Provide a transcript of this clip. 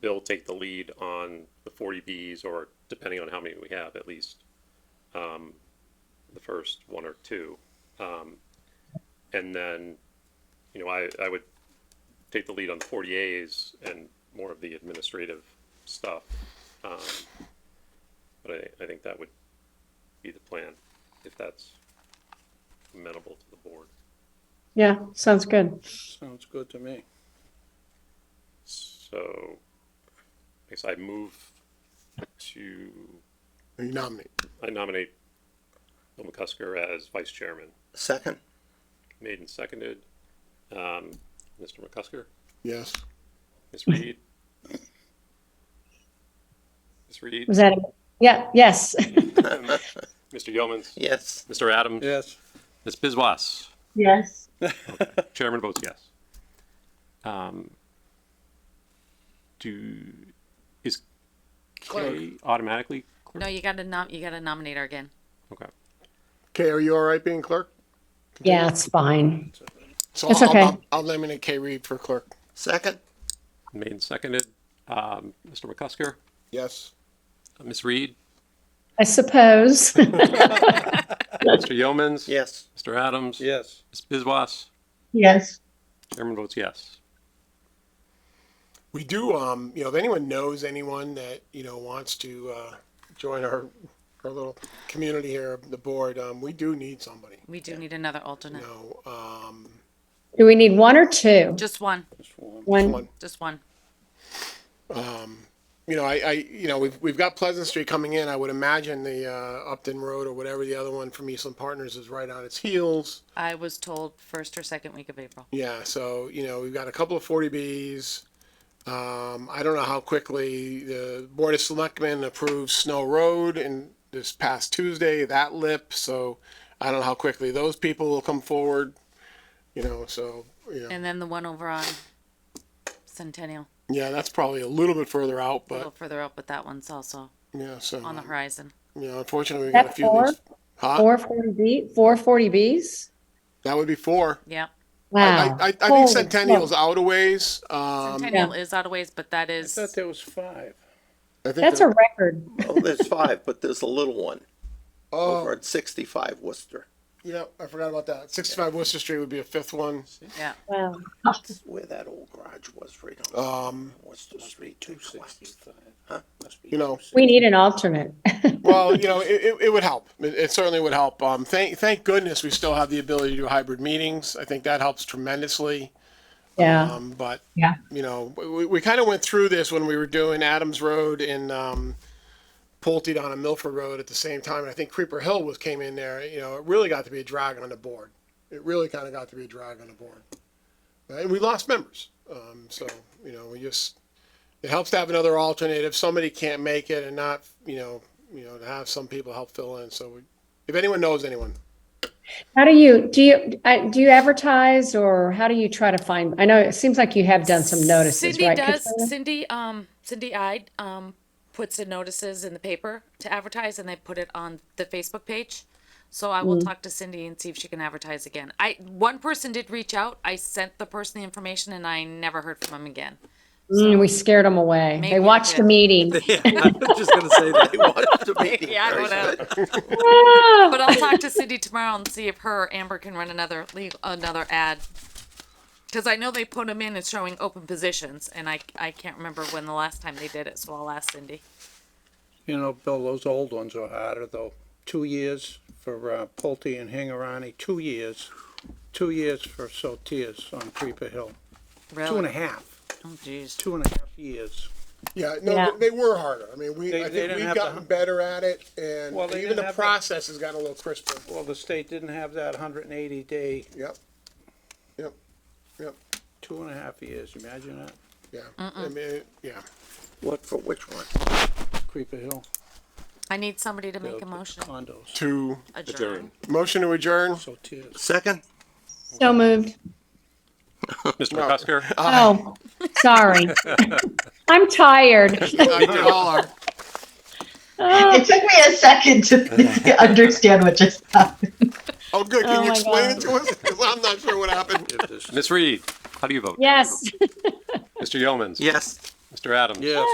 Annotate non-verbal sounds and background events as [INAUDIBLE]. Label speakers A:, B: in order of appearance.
A: Bill take the lead on the forty Bs or depending on how many we have, at least, um, the first one or two. Um, and then, you know, I, I would take the lead on the forty As and more of the administrative stuff. Um, But I, I think that would be the plan, if that's amenable to the board.
B: Yeah, sounds good.
C: Sounds good to me.
A: So, I guess I move to,
D: You nominate.
A: I nominate Bill McCusker as vice chairman.
C: Second?
A: Made and seconded. Um, Mr. McCusker,
D: Yes.
A: Ms. Reed? Ms. Reed,
B: Was that, it? yeah, yes,
A: Mr. Yeomans,
C: Yes.
A: Mr. Adams,
C: Yes.
A: Ms. Bizwas.
B: yes.
A: Chairman votes yes. Um, do, is Kay automatically
E: No,
A: clerk?
E: you gotta nom, you gotta nominate her again.
A: Okay.
D: Kay, are you all right being clerk?
B: [LAUGHS] Yeah, it's fine.
D: So
B: It's
D: I'll-
B: okay.
D: I'll, I'll nominate Kay Reed for clerk.
C: Second?
A: Made and seconded. Um, Mr. McCusker,
D: Yes.
A: Ms. Reed,
B: I suppose. [LAUGHS]
A: Mr. Yeomans.
C: Yes.
A: Mr. Adams.
C: Yes.
A: Ms. Bizwas.
B: Yes.
A: Chairman votes yes.
D: We do, um, you know, if anyone knows anyone that, you know, wants to, uh, join our, our little community here, the board, um, we do need somebody.
E: We do need another alternate.
D: You know, um,
B: Do we need one or two?
E: Just one,
B: One,
D: one,
E: just one.
D: you know, I, I, you know, we've, we've got Pleasant Street coming in. I would imagine the, uh, Upton Road or whatever the other one from Eastland Partners is right on its heels.
E: I was told first or second week of April.
D: Yeah, so, you know, we've got a couple of forty Bs. Um, I don't know how quickly the Board of Selectmen approved Snow Road and this past Tuesday, that lip, so I don't know how quickly those people will come forward, you know, so, you know,
E: And then the one over on Centennial,
D: yeah, that's probably a little bit further out,
E: a little
D: but,
E: further up, but that one's also
D: yeah, so,
E: on the
D: you
E: horizon.
D: know, unfortunately, we've got a
B: that
D: few of
B: four,
D: these. Huh?
B: four forty B, four forty Bs?
D: That would be four.
E: Yeah.
B: Wow.
D: I, I, I
B: Holy
D: think Centennial's
B: smoke.
D: out a ways, um.
E: Centennial is out of ways, but that
C: I
E: is,
C: thought there was five.
D: I think
B: That's a
D: they're-
B: record.
C: Oh,
D: [LAUGHS]
C: there's five, but there's a little one over
D: Oh,
C: at sixty-five Worcester.
D: yeah, I forgot about that. Sixty-five Worcester Street would be a fifth one.
E: yeah.
B: Wow.
C: That's where that old garage was, right on
D: Um,
C: Worcester Street. Two sixty-five. [LAUGHS]
D: you know,
B: We need an alternate. [LAUGHS]
D: Well, you know, it, it, it would help. It, it certainly would help. Um, thank, thank goodness we still have the ability to do hybrid meetings. I think that helps tremendously.
B: Yeah,
D: Um, but,
B: yeah.
D: you know, we, we kind of went through this when we were doing Adams Road and, um, Pulte down on Milford Road at the same time. And I think Creeper Hill was, came in there, you know, it really got to be a drag on the board. It really kind of got to be a drag on the board. And we lost members. Um, so, you know, we just, it helps to have another alternate if somebody can't make it and not, you know, you know, to have some people help fill in. So we, if anyone knows anyone,
B: How do you, do you, I- do you advertise or how do you try to find? I know it seems like you have done some notices,
E: Cindy
B: right?
E: does,
B: Katrina?
E: Cindy, um, Cindy Ide, um, puts the notices in the paper to advertise and they put it on the Facebook page. So I will talk to Cindy and see if she can advertise again. I, one person did reach out. I sent the person the information and I never heard from him again.
B: Mm, we scared them away.
E: Maybe
B: They
E: we
B: watched the
D: [LAUGHS]
E: did.
B: meeting.
C: Just gonna say that. They wanted to meet him.
E: Yeah, I
C: Very
E: don't know.
C: good.
B: Ah!
E: But I'll talk to Cindy tomorrow and see if her Amber can run another legal, another ad. Because I know they put them in as showing open positions, and I I can't remember when the last time they did it, so I'll ask Cindy.
F: You know, Bill, those old ones are harder though. Two years for uh, Pulte and Hingarani, two years, two years for Sotiers on Creeper Hill,
E: Really?
F: two and a half,
E: Oh, jeez.
F: two and a half years.
D: yeah, no,
B: Yeah.
D: they were harder. I mean, we,
F: They-
D: I
F: they
D: think
F: didn't
D: we've
F: have the
D: gotten
F: hun-
D: better at it and
F: Well, they
D: even
F: didn't
D: the
F: have the-
D: process has gotten a little crisper.
F: Well, the state didn't have that hundred and eighty day,
D: Yep. Yep. Yep.
F: two and a half years, imagine that,
D: Yeah. I mean, it- yeah.
C: What, for which one?
F: Creeper Hill.
E: I need somebody to
F: the-
E: make
F: the
E: a motion.
F: Condos,
D: To
E: Adjourn.
D: motion to adjourn.
F: Sotiers.
C: Second?
B: So moved.
A: Mr. McCusker,
B: Oh,
D: [LAUGHS]
B: sorry. I'm tired.
D: I did all our-
G: It took me a second to [LAUGHS] understand what just happened.
D: Oh, good. Can
B: Oh,
D: you
B: my
D: explain
B: God.
D: it to us? Because I'm not sure what happened.
F: If this-
A: Ms. Reed, how do you vote?
B: Yes.
A: Mr. Yeomans.
C: Yes.
H: Mr. Adams?
A: Yes.